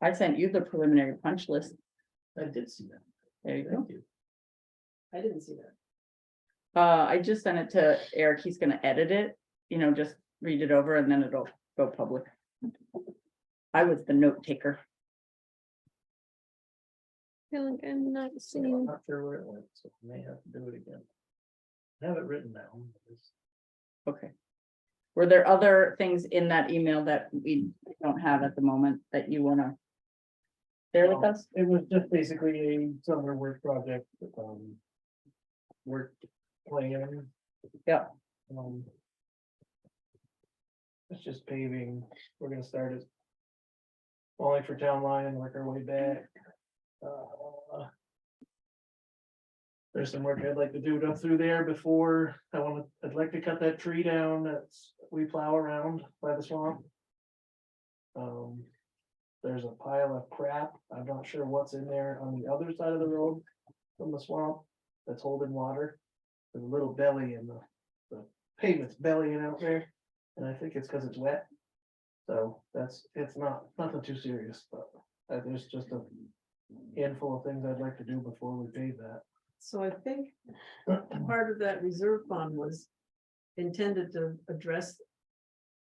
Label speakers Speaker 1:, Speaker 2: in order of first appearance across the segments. Speaker 1: I sent you the preliminary punch list.
Speaker 2: I did see that.
Speaker 1: There you go.
Speaker 2: Thank you.
Speaker 3: I didn't see that.
Speaker 1: Uh, I just sent it to Eric. He's gonna edit it, you know, just read it over and then it'll go public. I was the note taker.
Speaker 4: feel like I'm not
Speaker 2: I'm
Speaker 4: seeing,
Speaker 2: not sure where it went, so I may have to do it again. I Have it written down. but it's-
Speaker 1: Okay. Were there other things in that email that we don't have at the moment that you wanna? Share with
Speaker 2: No.
Speaker 1: us?
Speaker 2: It was just basically a summer work project, um. Work plan.
Speaker 1: Yeah.
Speaker 2: Um. It's just paving, we're gonna start it. Only for town line and work our way back. Uh, There's some work I'd like to do up through there before, I wanna, I'd like to cut that tree down that's, we plow around by the swamp. Um. There's a pile of crap. I'm not sure what's in there on the other side of the road from the swamp that's holding water. There's a little belly in the, the pavement's bellying out there, and I think it's because it's wet. So that's, it's not, nothing too serious, but uh, there's just a handful of things I'd like to do before we pave that.
Speaker 3: So I think part of that reserve fund was intended to address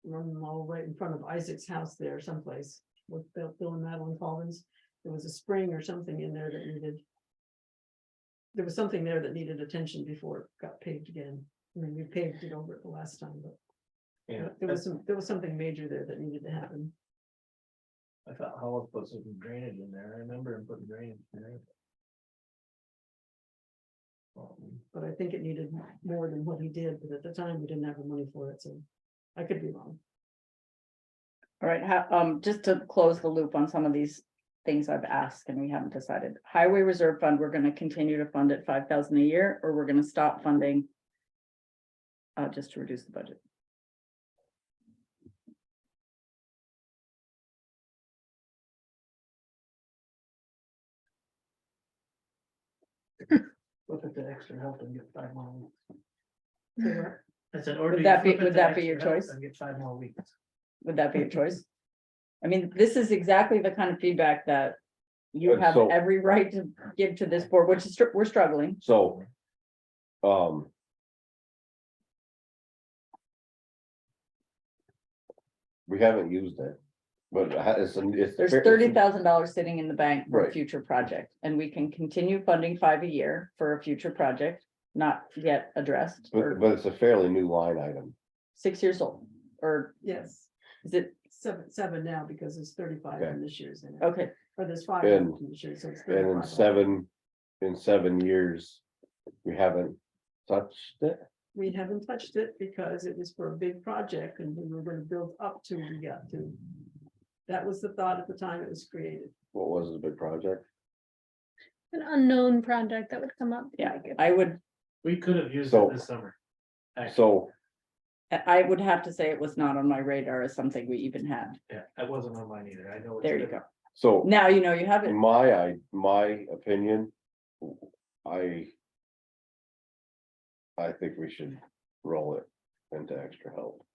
Speaker 3: one mall right in front of Isaac's house there someplace with Bill Bill and Madeline Collins. There was a spring or something in there that needed. There was something there that needed attention before it got paved again. I mean, we paved it over it the last time, but there was some, there was something major there that needed to happen.
Speaker 2: I thought Howell put some drainage in there. I remember him putting drainage in there. Um,
Speaker 3: But I think it needed more than what he did, but at the time, we didn't have the money for it, so I could be wrong.
Speaker 1: All right, ha- um, just to close the loop on some of these things I've asked and we haven't decided. Highway Reserve Fund, we're gonna continue to fund at five thousand a year, or we're gonna stop funding. Uh, just to reduce the budget.
Speaker 2: Look at the extra help and get five more weeks.
Speaker 3: So we're-
Speaker 2: That's an order.
Speaker 1: Would
Speaker 2: you
Speaker 1: that be-
Speaker 2: flip it
Speaker 1: would
Speaker 2: to
Speaker 1: that be
Speaker 2: extra
Speaker 1: your
Speaker 2: help
Speaker 1: choice?
Speaker 2: And get five more weeks.
Speaker 1: Would that be a choice? I mean, this is exactly the kind of feedback that you
Speaker 5: And
Speaker 1: have
Speaker 5: so-
Speaker 1: every right to give to this board, which is, str- we're struggling.
Speaker 5: So. Um. We haven't used it, but it ha- it's, an- it's.
Speaker 1: There's
Speaker 5: it's-
Speaker 1: thirty thousand dollars sitting in the bank for a
Speaker 5: Right.
Speaker 1: future project, and we can continue funding five a year for a future project, not yet addressed,
Speaker 5: But,
Speaker 1: or
Speaker 5: but it's a fairly new line item.
Speaker 1: six years old, or
Speaker 3: Yes,
Speaker 1: is it,
Speaker 3: seven, seven now because it's thirty-five in this year's, in it,
Speaker 1: okay,
Speaker 3: or there's five
Speaker 5: And-
Speaker 3: in this year, so it's
Speaker 5: And in
Speaker 3: 35.
Speaker 5: seven, in seven years, we haven't touched it.
Speaker 3: We haven't touched it because it was for a big project and we were gonna build up to we got to. That was the thought at the time it was created.
Speaker 5: What was the big project?
Speaker 4: an unknown project that would come up.
Speaker 1: Yeah,
Speaker 4: like, if-
Speaker 1: I would,
Speaker 2: We could have used
Speaker 5: So-
Speaker 2: it this summer. Actually,
Speaker 5: So,
Speaker 1: I would have to say it was not on my radar as something we even had,
Speaker 2: yeah, that wasn't on mine either. I know. it's
Speaker 1: there you
Speaker 2: been-
Speaker 1: go,
Speaker 5: so
Speaker 1: now you know you have
Speaker 5: in
Speaker 1: it,
Speaker 5: my, I, my opinion, I. I think we should roll it into extra help.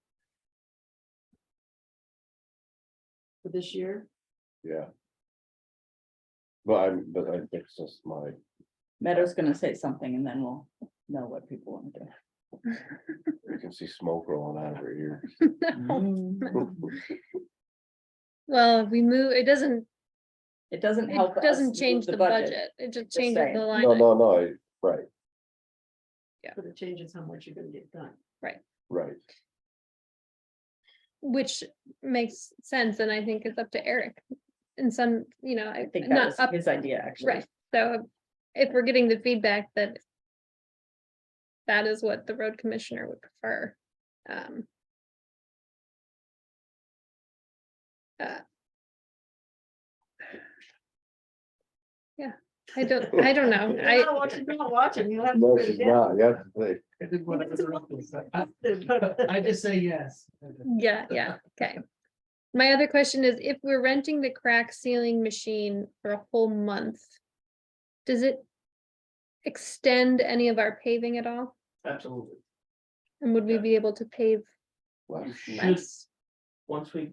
Speaker 3: For this year,
Speaker 5: Yeah. But I'm, but I, it's just my,
Speaker 1: Meadow's gonna say something and then we'll know what people want to do.
Speaker 5: you can see smoke rolling out of her ear.
Speaker 4: Well, if we move, it doesn't,
Speaker 1: It doesn't help.
Speaker 4: it
Speaker 1: us
Speaker 4: doesn't
Speaker 1: move
Speaker 4: change the budget, it just changes
Speaker 1: saying.
Speaker 4: the line.
Speaker 5: No,
Speaker 4: item.
Speaker 5: no, no, I- right,
Speaker 3: but it changes how much you're gonna get done.
Speaker 5: right.
Speaker 4: Which makes sense, and I think it's up to Eric. And some, you know,
Speaker 1: I
Speaker 4: I
Speaker 1: think that
Speaker 4: not
Speaker 1: was
Speaker 4: up,
Speaker 1: his idea, actually.
Speaker 4: right, so if we're getting the feedback that. That is what the road commissioner would prefer. Um. uh, Yeah, I don't, I don't know,
Speaker 3: You're
Speaker 4: I,
Speaker 3: not watching, you're not watching, you'll have to
Speaker 5: No,
Speaker 3: put it
Speaker 5: she's
Speaker 3: down.
Speaker 5: not, yeah, like,
Speaker 2: I did want to interrupt this. I-
Speaker 3: But-
Speaker 2: I just say yes.
Speaker 4: Yeah, yeah, okay. My other question is if we're renting the crack sealing machine for a whole month, does it extend any of our paving at all?
Speaker 2: Absolutely.
Speaker 4: And would we
Speaker 2: Yeah.
Speaker 4: be able to pave
Speaker 5: left.
Speaker 2: You should,
Speaker 4: less?
Speaker 2: once we